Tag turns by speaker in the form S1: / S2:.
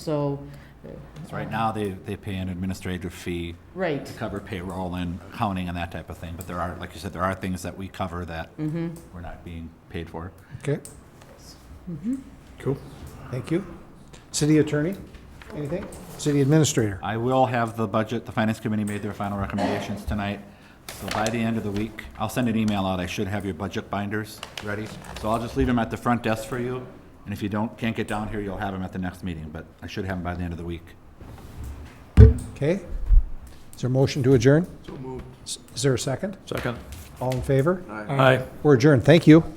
S1: so,
S2: So Right now, they, they pay an administrative fee
S1: right,
S2: to cover payroll and accounting and that type of thing, but there are, like you said, there are things that we cover that we're not being paid for.
S3: Okay. Cool. Mm-hmm. Thank you. City attorney, anything? City administrator?
S2: I will have the budget, the finance committee made their final recommendations tonight. So by the end of the week, I'll send an email out, I should have your budget binders ready. So I'll just leave them at the front desk for you, and if you don't, can't get down here, you'll have them at the next meeting, but I should have them by the end of the week.
S3: Okay. Is there a motion to adjourn? So moved. Is there a second?
S4: Second.
S3: All in favor?
S4: Aye.
S3: We're adjourned. Thank you.